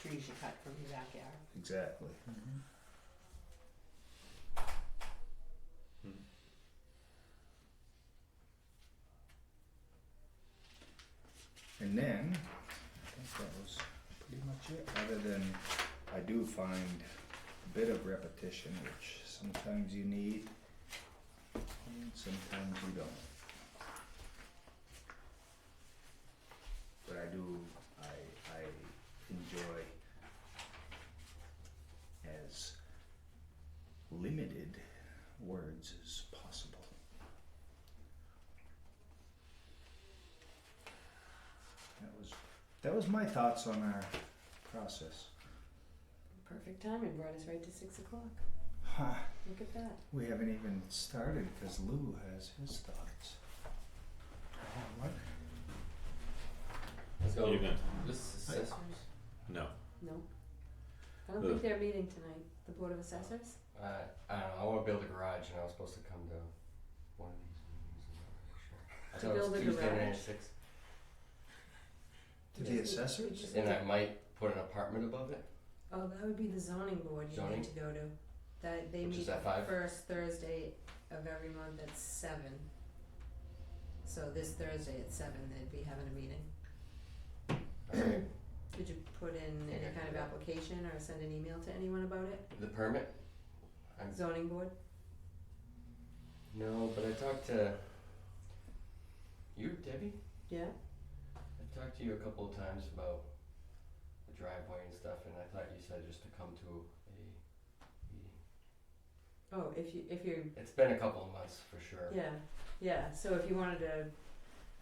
trees you cut from your backyard. Exactly. Hmm. And then, I think that was pretty much it, other than I do find a bit of repetition, which sometimes you need and sometimes you don't. But I do, I, I enjoy as limited words as possible. That was that was my thoughts on our process. Perfect timing brought us right to six o'clock. Huh, Look at that. we haven't even started because Lou has his thoughts. What? So Evening. this is assessors? No. No. I don't Ugh. think they're meeting tonight, the Board of Assessors. Uh, I don't know. I want to build a garage, and I was supposed to come to one of To these meetings. and I'm not really sure. I thought it build a was Tuesday night garage? at six, To the assessors? and I might put an apartment above it. Oh, that would be the zoning board you Zoning? need to go to. That they Which meet is at five? first Thursday of every month at seven. So this Thursday at seven, they'd be having a meeting. Alright. Did you put in any Okay. kind of application or send an email to anyone about it? the permit? I'm- Zoning board? No, but I talked to you, Debbie. Yeah? I talked to you a couple of times about the driveway and stuff, and I thought you said just to come to a meeting. Oh, if you, if you're It's been a couple of months for sure. Yeah, yeah, so if you wanted to,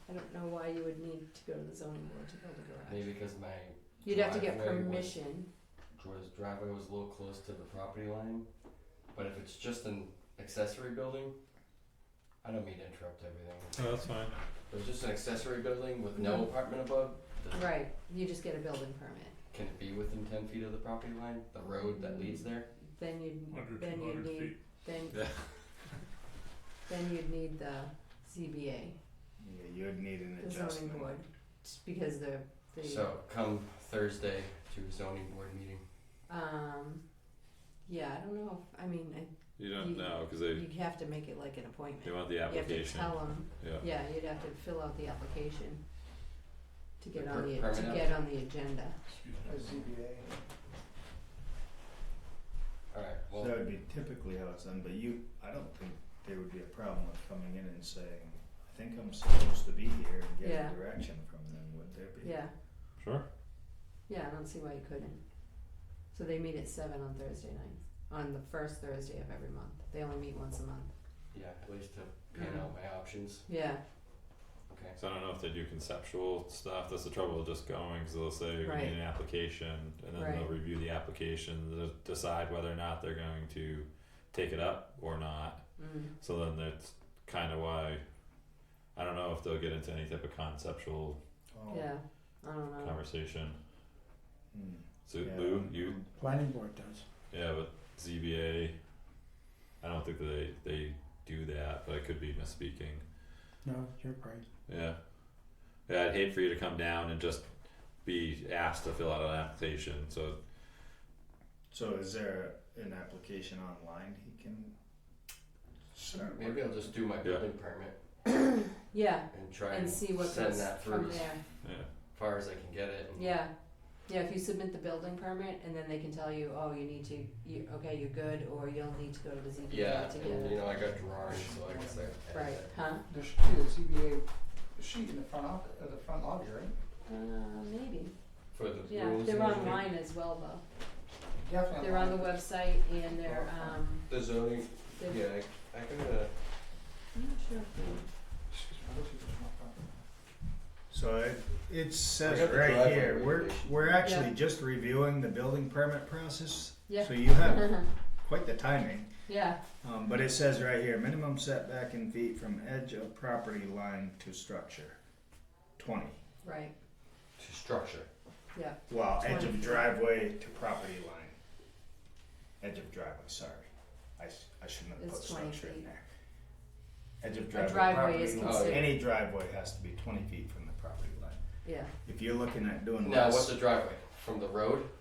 I don't know why you would need to go to the zoning board to build a garage. Maybe because my You'd have to get driveway was- permission, Jordan's driveway was a little close to the property line, but if it's just an accessory building, I don't mean to interrupt everything. No, Oh, that's fine. If it's just an accessory building with Mm-hmm. no apartment above, does- right, you just get a building permit, can it be within ten feet of the property line, the road that leads there? then you'd, Hundred, then two you'd hundred need, feet. then, Yeah. then you'd need the CBA, Yeah, you'd need an the zoning adjustment. board, just because the, the, So come Thursday to zoning board meeting. um, yeah, I don't know, if- I mean, I, You don't You- know because they you'd have to make it like an they appointment, want the you have to application. tell them, yeah. yeah, you'd have to fill out the application to get on per- the, to permanent? get on the agenda. Alright, So well, that would be typically how it's done, but you, I don't think there would be a problem with coming in and saying, I think I'm supposed to be here and Yeah. getting direction from them, would there be? Yeah, Sure. yeah, I don't see why you couldn't. So they meet at seven on Thursday nights, on the first Thursday of every month. They only meet once a month. yeah, at least to Mm-hmm. pan out my options, Yeah, okay. So I don't know if they do conceptual stuff. That's the trouble with just going because they'll say we Right. need an application, and then they'll Right. review the application, they'll decide whether or not they're going to take it up or not. mm, So then that's kind of why I don't know if they'll get into any type of conceptual Oh, yeah, I don't know. conversation. hmm, So yeah, Lou, you um, Planning board does. Yeah, but ZBA, I don't think that they they do that, but I could be misspeaking. No, you're right. Yeah, yeah, I'd hate for you to come down and just be asked to fill out an application. So So is there an application online he can start working? Maybe I'll just do my Yeah. building permit Yeah, and try and and see what send goes that from through there. as yeah, far as I can get it and Yeah, yeah. If you submit the building permit, and then they can tell you, oh, you need to, you okay, you're good, or you'll need to go to the ZBA Yeah, to get and you it. know, I got drawings, so I guess I. I- Right? Huh? There should be a ZBA sheet in the front off, uh, the front lobby, right? Uh, maybe. For the Yeah, rules. they're and everything. online as well, though. Oh, Definitely. They're on the website and they're um. The zoning, They're, yeah, I, uh, I got a, I'm not sure if they- Excuse me, I wish it was my phone. So it, it I says got the right driveway here, we're, regulation. we're actually Yeah. just reviewing the building permit process. Yeah. Uh-huh. So you have quite the timing. yeah, Um, but it says right here, minimum setback in feet from edge of property line to structure, twenty. right. to structure. Well, edge 20. of driveway to property line. Edge of driveway, sorry. I, s- I shouldn't have put It's 20 structure in feet. there. Edge of A driveway, driveway is property line. Oh, yeah. considered, Any driveway has to be twenty feet from the property line. yeah. If you're looking at doing Now, less. what's the driveway? From the road?